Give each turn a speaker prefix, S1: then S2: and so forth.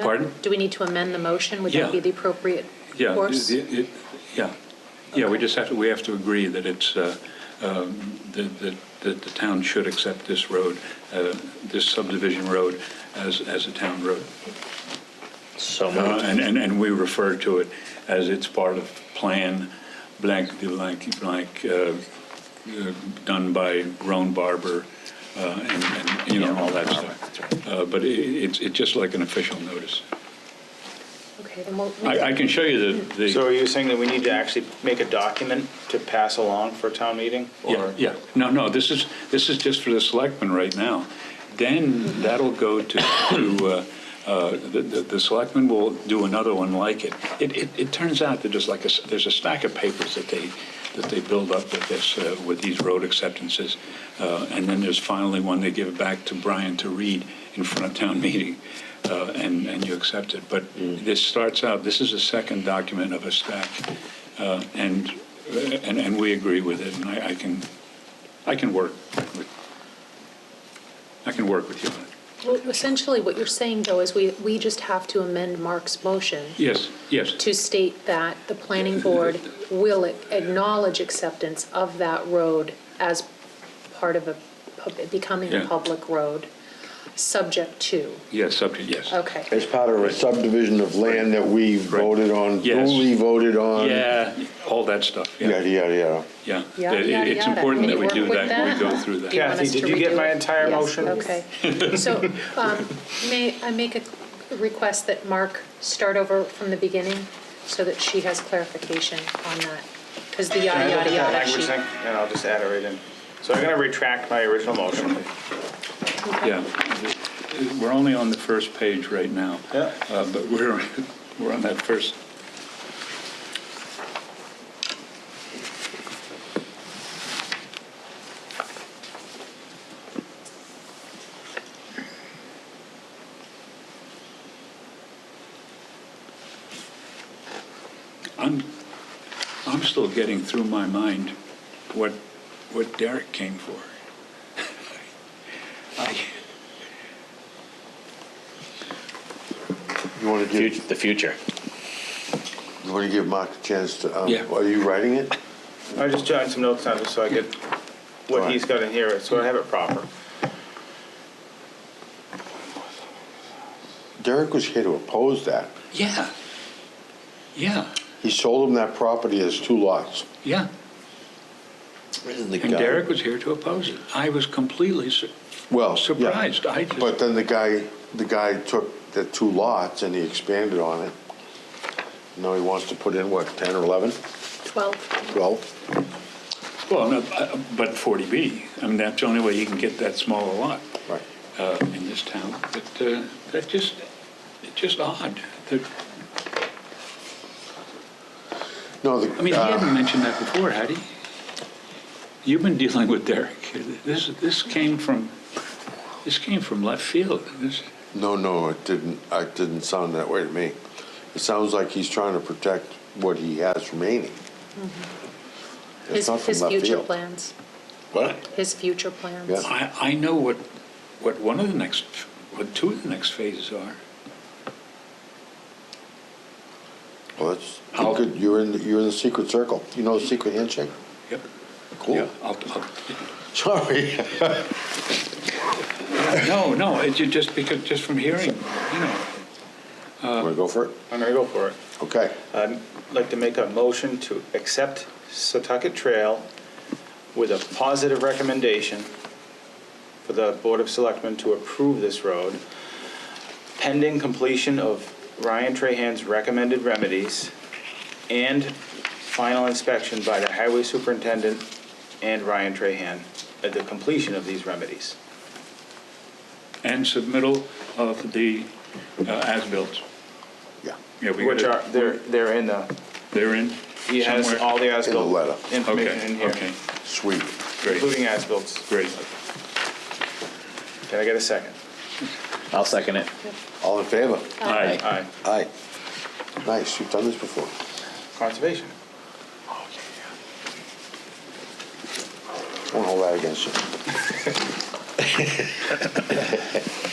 S1: Pardon?
S2: Do we need to amend the motion? Would
S1: Yeah.
S2: that be the appropriate
S1: Yeah,
S2: course?
S1: it- it- yeah, yeah, we just have to, we have to agree that it's, uh, um, that that- that the town should accept this road, uh, this subdivision road as, as a town road.
S3: So
S1: Uh,
S3: moved.
S1: And, and and we refer to it as it's part of Plan blank, de blank, blank, uh, uh, done by Roan Barber, uh, and, and, you know, all that stuff. Uh, But it- it's, it's just like an official notice.
S2: Okay, then we'll,
S1: I, I can show you the- the.
S3: So are you saying that we need to actually make a document to pass along for town meeting?
S1: Yeah,
S3: or-
S1: yeah. No, no, this is, this is just for the selectmen right now. Then that'll go to, to, uh, uh, the, the the selectmen will do another one like it. It, it, it turns out that there's like a, s- there's a stack of papers that they, that they build up with this, uh, with these road acceptances. Uh, And then there's finally one they give back to Brian to read in front of town meeting, uh, and, and you accept it. But this starts out, this is a second document of a stack. Uh, And, and, and we agree with it, and I, I can, I can work with, I can work with you on it.
S2: well, essentially what you're saying though is we, we just have to amend Mark's motion
S1: Yes, yes,
S2: to state that the planning board will acknowledge acceptance of that road as part of a, pub- becoming a
S1: Yeah.
S2: public road, subject to,
S1: yes, subject, yes.
S2: okay.
S4: As part of a subdivision of land that we voted on,
S1: Yes.
S4: duly voted on.
S1: Yeah, all that stuff,
S4: Yada,
S1: yeah,
S4: yada, yada.
S1: yeah.
S2: Yada,
S1: It-
S2: yada,
S1: It's
S2: yada.
S1: important
S2: Can
S1: that we
S2: you
S1: do
S2: work with
S1: that, we go
S2: that?
S1: through
S2: Do you
S1: that.
S2: want
S3: Kathy,
S2: us to
S3: did you get
S2: redo
S3: my
S2: it?
S3: entire
S2: Yes,
S3: motion?
S2: Okay. So um, may I make a request that Mark start over from the beginning so that she has clarification on that? Because the
S3: Can I
S2: yada,
S3: look at
S2: yada, yada
S3: that language
S2: sheet.
S3: thing? And I'll just add it right in. So I'm going to retract my original motion.
S1: Yeah, we're only on the first page right now.
S3: Yeah.
S1: Uh, But we're, we're on that first, I'm, I'm still getting through my mind what, what Derek came for. I,
S4: You want to
S3: Fut-
S4: give,
S3: The future.
S4: you want to give Mark a chance to, um,
S1: Yeah.
S4: are you writing it?
S3: I just jotted some notes down just so I get what
S4: Alright.
S3: he's got in here, so I have it proper.
S4: Derek was here to oppose that.
S1: Yeah. Yeah,
S4: He sold him that property as two lots.
S1: yeah. And Derek was here to oppose it. I was completely, sur-
S4: Well, yeah.
S1: surprised. I just-
S4: But then the guy, the guy took the two lots and he expanded on it. Now he wants to put in, what, 10 or 11,
S2: 12,
S4: 12?
S1: well, no, uh, but 40B, I mean, that's the only way you can get that small a lot
S4: Right.
S1: uh, in this town. But uh, that just, it's just odd. that-
S4: No, the.
S1: I mean, he
S4: uh,
S1: hadn't mentioned that before, had he? You've been dealing with Derek. This, this came from, this came from left field. This-
S4: No, no, it didn't, it didn't sound that way to me. It sounds like he's trying to protect what he has remaining. It's
S2: Mm-hmm. his,
S4: not from
S2: his
S4: left
S2: future
S4: field.
S2: plans,
S4: What?
S2: his future plans.
S4: Yeah.
S1: I, I know what, what one of the next, what two of the next phases are.
S4: Well, that's,
S1: I'll-
S4: you could, you're in, you're in the secret circle. You know the secret handshake?
S1: Yep. Yeah,
S4: Cool.
S1: I'll- I'll-
S4: Sorry.
S1: No, no, it's ju- just because, just from hearing, you know.
S4: Want to go for it?
S3: I'm going to go for it.
S4: Okay.
S3: I'd like to make a motion to accept Setauket Trail with a positive recommendation for the Board of Selectmen to approve this road pending completion of Ryan Trahan's recommended remedies and final inspection by the Highway Superintendent and Ryan Trahan at the completion of these remedies.
S1: And submittal of the uh, as-built.
S4: Yeah.
S1: Yeah, we
S3: Which are,
S1: gotta-
S3: they're, they're in the,
S1: They're in
S3: he has
S1: somewhere?
S3: all the as
S4: In the letter.
S3: information
S1: Okay,
S3: in here,
S1: okay,
S4: Sweet.
S1: great,
S3: including as-bills.
S1: great.
S3: Can I get a second?
S5: I'll second it.
S4: All in favor?
S1: Aye.
S3: Aye.
S4: Aye. Nice, you've done this before.
S3: Conservation.
S4: Won't hold that against you.